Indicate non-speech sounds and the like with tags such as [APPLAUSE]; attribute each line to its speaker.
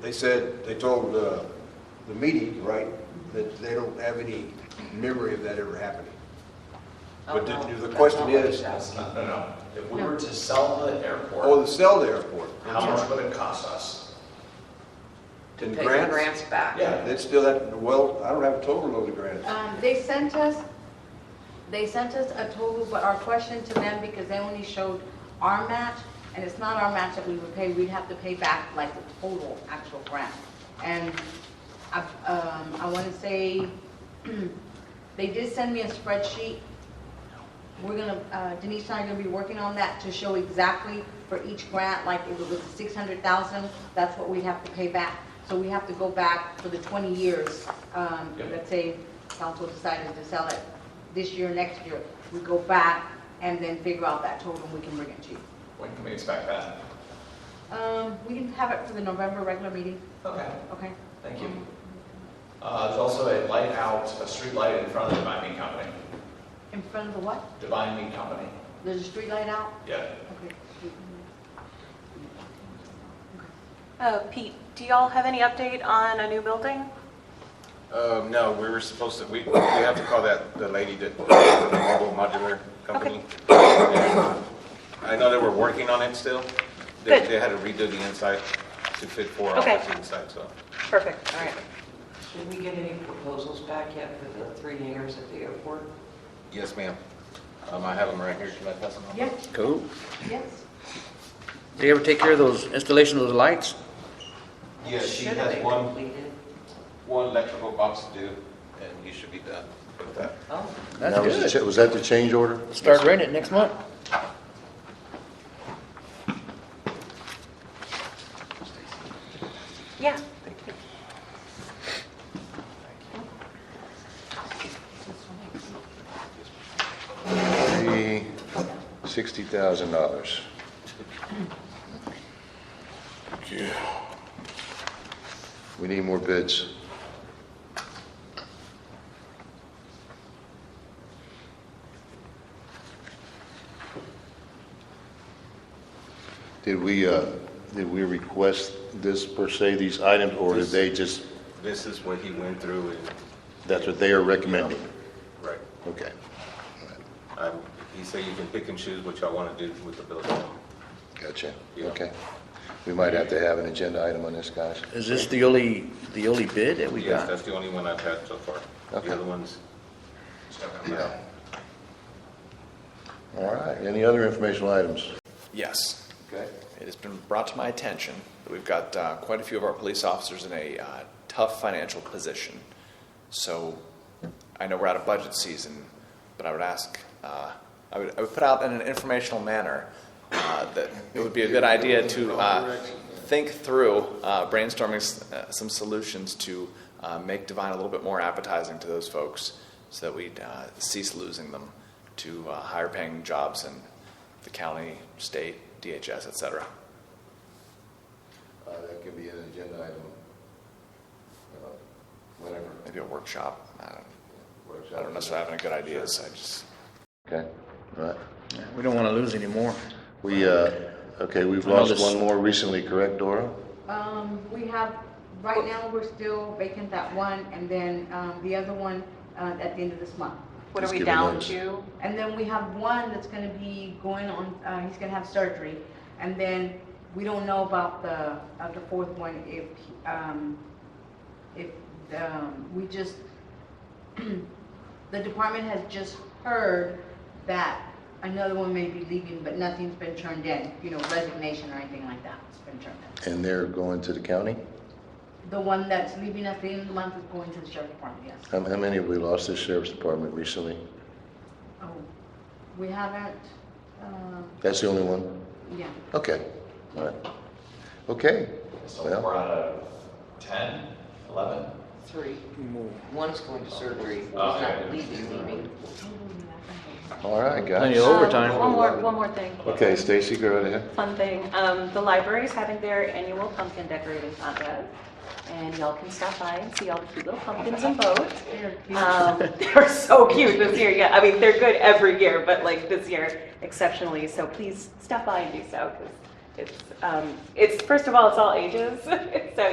Speaker 1: They said, they told uh, the meeting, right, that they don't have any memory of that ever happening. But the- the
Speaker 2: Oh,
Speaker 1: question is-
Speaker 3: That's not, no, no. um, If we
Speaker 2: No.
Speaker 3: were to sell the
Speaker 1: Oh,
Speaker 3: airport,
Speaker 1: the sell the airport.
Speaker 3: how much would it cost us?
Speaker 2: To
Speaker 1: And
Speaker 2: pay the
Speaker 1: grants?
Speaker 2: grants back.
Speaker 3: Yeah,
Speaker 1: That's still, that well, I don't have a total load of grants.
Speaker 4: Um, They sent us, they sent us a total, but our question to them, because they only showed our match, and it's not our match that we would pay, we'd have to pay back like the total actual grant. And I, um, I want to say, [CLEARS THROAT] they did send me a spreadsheet. We're gonna, uh, Denise and I are gonna be working on that to show exactly for each grant, like if it was six hundred thousand, that's what we'd have to pay back. So we have to go back for the twenty years, um,
Speaker 3: Yep.
Speaker 4: let's say council decided to sell it this year, next year. We go back and then figure out that total and we can bring it to you.
Speaker 3: when can we expect that?
Speaker 4: Um, we can have it for the November regular meeting,
Speaker 3: Okay,
Speaker 4: okay?
Speaker 3: thank you. Uh, there's also a light out, a street light in front of the Divine Meat Company.
Speaker 4: In front of the what?
Speaker 3: Divine Meat Company,
Speaker 4: There's a street light out?
Speaker 3: yeah.
Speaker 4: Okay.
Speaker 5: Uh, Pete, do y'all have any update on a new building?
Speaker 6: Um, no, we were supposed to, we, we have to call that, the lady that, the mobile modular company. I know they were working on it still. They,
Speaker 5: Good.
Speaker 6: they had to redo the inside to fit four
Speaker 5: Okay.
Speaker 6: offices inside, so.
Speaker 5: Perfect, all right.
Speaker 7: Did we get any proposals back yet for the three hangars at the airport?
Speaker 6: Yes, ma'am. Um, I have them right here. Should I pass them on?
Speaker 4: Yeah,
Speaker 8: Cool.
Speaker 4: yes.
Speaker 8: Did you ever take care of those installation of those lights?
Speaker 6: Yeah, she
Speaker 7: Should
Speaker 6: has
Speaker 7: they
Speaker 6: one,
Speaker 7: completed?
Speaker 6: one electrical box to do, and you should be done with that.
Speaker 7: Oh,
Speaker 8: That's
Speaker 9: That was the
Speaker 8: good.
Speaker 9: cha- Was that the change order?
Speaker 8: Start renting it next month.
Speaker 5: Yeah.
Speaker 9: The $60,000. We need more bids. Did we, uh, did we request this per se, these items, or did they just,
Speaker 6: This is what he went through and,
Speaker 9: that's what they are recommending?
Speaker 6: right.
Speaker 9: Okay.
Speaker 6: Um, he said you can pick and choose what y'all want to do with the building.
Speaker 9: Gotcha,
Speaker 6: Yeah.
Speaker 9: okay. We might have to have an agenda item on this, guys.
Speaker 8: Is this the only, the only bid that we
Speaker 6: Yes,
Speaker 8: got?
Speaker 6: that's the only one I've had so far.
Speaker 9: Okay.
Speaker 6: The other ones, stuck out my
Speaker 9: Yeah. All right, any other informational items?
Speaker 10: Yes.
Speaker 9: Okay.
Speaker 10: It has been brought to my attention that we've got uh, quite a few of our police officers in a uh, tough financial position. So I know we're out of budget season, but I would ask, uh, I would, I would put out in an informational manner uh, that it would be a good idea to uh, think through uh, brainstorming s- uh, some solutions to uh, make Divine a little bit more appetizing to those folks so that we uh, cease losing them to uh, higher paying jobs in the county, state, DHS, et cetera.
Speaker 9: Uh, That could be an agenda item, uh, whatever.
Speaker 10: Maybe a workshop. I don't,
Speaker 9: works
Speaker 10: I
Speaker 9: out.
Speaker 10: don't necessarily have any good ideas. I just.
Speaker 9: Okay, all right.
Speaker 8: Yeah, We don't want to lose any more.
Speaker 9: We, uh, okay, we've
Speaker 8: I know
Speaker 9: lost
Speaker 8: this-
Speaker 9: one more recently, correct, Dora?
Speaker 4: Um, we have, right now, we're still vacant that one, and then, um, the other one, uh, at the end of this month.
Speaker 5: What are
Speaker 9: Just
Speaker 5: we
Speaker 9: give a
Speaker 5: down
Speaker 9: notice.
Speaker 5: to?
Speaker 4: And then we have one that's gonna be going on, uh, he's gonna have surgery, and then we don't know about the, uh, the fourth one, if, um, if, um, we just, [CLEARS THROAT] the department has just heard that another one may be leaving, but nothing's been turned in, you know, resignation or anything like that has been turned in.
Speaker 9: And they're going to the county?
Speaker 4: The one that's leaving at the end of the month is going to the sheriff department, yes.
Speaker 9: How how many have we lost to sheriff's department recently?
Speaker 4: Oh, we haven't, um,
Speaker 9: That's the only one?
Speaker 4: yeah.
Speaker 9: Okay, all right. Okay,
Speaker 3: So
Speaker 9: Well-
Speaker 3: we're out of 10, 11?
Speaker 7: three. One's going to surgery, he's
Speaker 3: Oh, yeah,
Speaker 7: not
Speaker 3: yeah.
Speaker 7: leaving, leaving.
Speaker 9: all right,
Speaker 8: Plenty of
Speaker 9: guys.
Speaker 8: overtime.
Speaker 5: Um, One more, one more thing,
Speaker 9: Okay, Stacy, go right ahead.
Speaker 5: fun thing. Um, The library's having their annual pumpkin decorating contest, and y'all can stop by and see all the cute little pumpkins and boats. Um, [LAUGHS] they're so cute this year. Yeah, I mean, they're good every year, but like this year exceptionally. So please stop by and do so because it's, um, it's, first of all, it's all ages. [LAUGHS] So